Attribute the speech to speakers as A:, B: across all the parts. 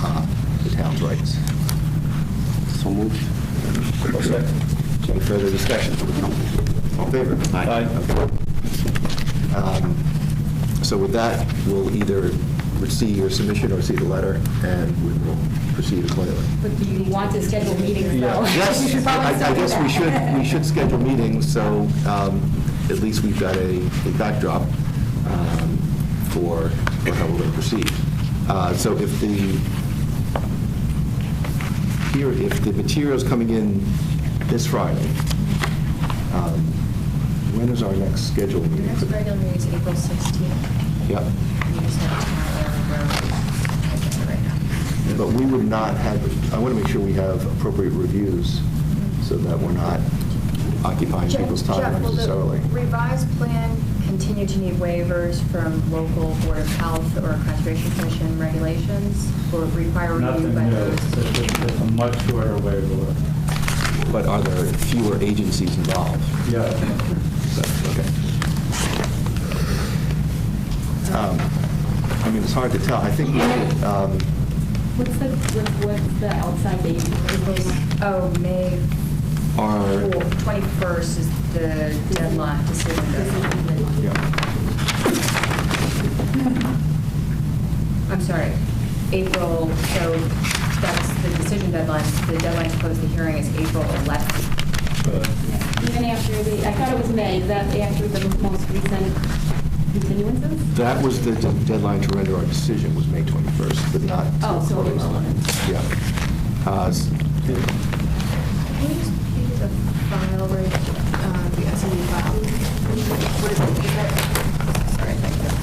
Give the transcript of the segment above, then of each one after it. A: Uh,
B: rights.
A: So moved.
B: I'll second.
A: Any further discussion? All in favor? Um, So with that, we'll either see your submission or see the letter, and we will proceed accordingly.
C: But you want to schedule meetings, though. You should
A: Yes,
C: probably
A: I I
C: still do
A: guess we
C: that.
A: should, we should schedule meetings, so um, at least we've got a a backdrop um, for for how we're going to proceed. Uh, So if the, here, if the material's coming in this Friday, um, when is our next scheduled
D: Your
A: meeting?
D: next regular meeting is April 16th.
A: Yep.
D: You just have tomorrow, or agenda right now.
A: But we would not have, I want to make sure we have appropriate reviews so that we're not occupying
D: Jeff,
A: people's time
D: Jeff, will
A: unnecessarily.
D: the revised plan continue to need waivers from local Board of Health or Conservation Commission regulations, or require review
E: Nothing
D: by
E: new,
D: those?
E: It's just- it's just a much shorter way to work.
A: But are there fewer agencies involved?
E: Yeah.
A: So, Okay. Um, I mean, it's hard to tell. I think, um,
C: What's the, what- what's the outside date?
D: Oh, May
A: are,
D: 21st is the deadline to submit.
A: yeah,
D: I'm sorry, April, so that's the decision deadline. The deadline to close the hearing is April 11th.
C: Even after the, I thought it was May, is that after the most recent continuances?
A: that was the de- deadline to render our decision was May 21st, but not.
C: Oh, so it was
A: Yeah. Uh, s-
D: Can you just give the file, right, uh, the S and D file? What is it, is that, sorry, thank you.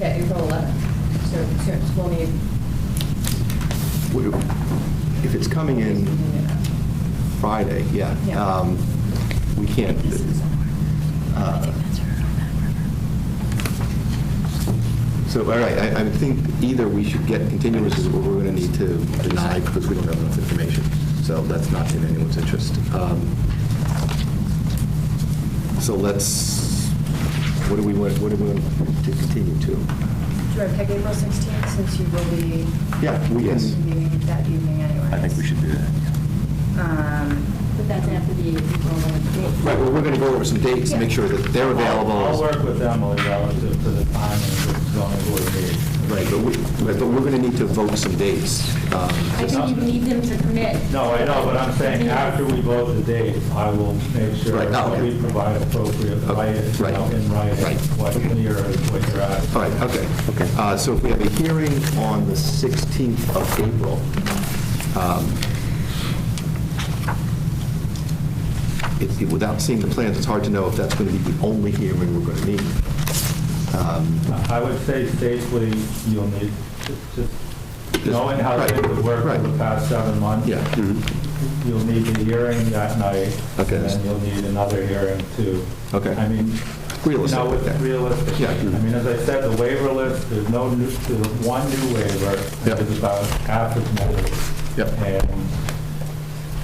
D: Yeah, April 11th, so, so it's- we'll need.
A: w- If it's coming in Friday, yeah.
D: Yeah.
A: Um, We can't, uh, so, all right, I, I think either we should get continuances or we're going to need to deny because we don't have enough information. So that's not in anyone's interest. Um, So let's, what do we want, what do we want to continue to?
D: Do I pick April 16th, since you will be
A: Yeah, we can.
D: meeting that evening anyway?
A: do that.
D: Um,
C: But that's after the April 11th date.
A: Right, well, we're going to go over some dates, make sure that they're available.
E: I'll work with Emily relative to the time and the zoning board meeting.
A: Right, but we, but we're going to need to vote some dates. Um,
C: I think you need them to commit.
E: No, I know, but I'm saying after we vote the date, I will make sure
A: Right, oh,
E: that
A: okay.
E: we provide appropriate,
A: Okay,
E: right, you
A: right,
E: know, in
A: right.
E: writing, what you're, what you're asking.
A: All right, okay. Uh, So if we have a hearing on the 16th of April, um, it- it- without seeing the plans, it's hard to know if that's going to be the only hearing we're going to need. Um,
E: I would say safely, you'll need, just knowing how
A: Right,
E: things have worked
A: right.
E: over the past seven months.
A: Yeah.
E: You'll need a hearing that night.
A: Okay.
E: And then you'll need another hearing too.
A: Okay.
E: I mean.
A: Realistic,
E: You know,
A: okay.
E: it's realistic.
A: Yeah.
E: I mean, as I said, the waiver list, there's no new, there's one new waiver.
A: Yeah.
E: It's about African measures.
A: Yep.
E: And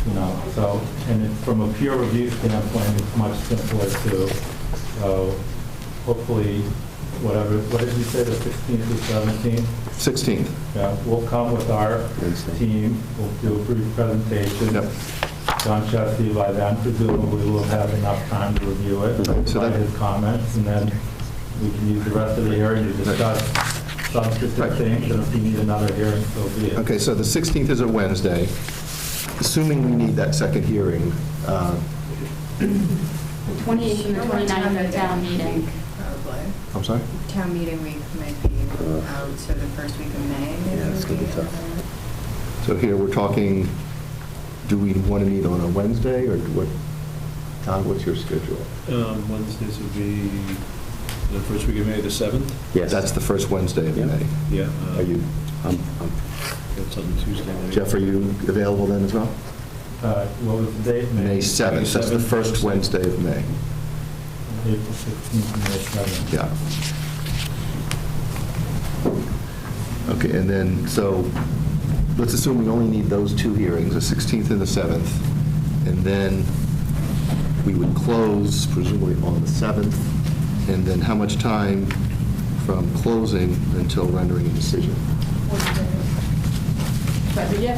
E: you know, so, and it- from a peer review standpoint, it's much simpler too. So hopefully, whatever, what did you say, the 16th to 17th?
A: 16th,
E: Yeah, we'll come with our
A: Wednesday.
E: team, we'll do a brief presentation.
A: Yep.
E: John Chesky, by then presumably will have enough time to review it,
A: Right, so
E: by
A: that-
E: his comments, and then we can use the rest of the hearing to discuss
A: Right.
E: substantive things, and if you need another hearing, so be it.
A: okay, so the 16th is a Wednesday. Assuming we need that second hearing, uh,
C: The 28th and the 29th are town meeting.
D: Probably.
A: I'm sorry?
D: Town meeting week might be out, so the first week of May. maybe
A: Yeah, it's
D: would
A: gonna be tough.
D: another-
A: So here, we're talking, do we want to meet on a Wednesday, or what, Todd, what's your schedule?
F: Um, Wednesdays would be the first week of May, the 7th?
G: Yes.
A: That's the first Wednesday of
G: Yeah.
A: May.
F: Yeah. uh,
A: Are you, um,
G: I'm- I'm-
F: That's on Tuesday. maybe.
A: Jeff, are you available then as well?
E: Uh, What was the date?
A: May 7th, that's the
F: 7th.
A: first Wednesday of May.
E: April 16th, and May 7th.
A: Yeah. Okay, and then, so, let's assume we only need those two hearings, the 16th and the 7th, and then we would close presumably on the 7th, and then how much time from closing until rendering a decision?
C: But yeah,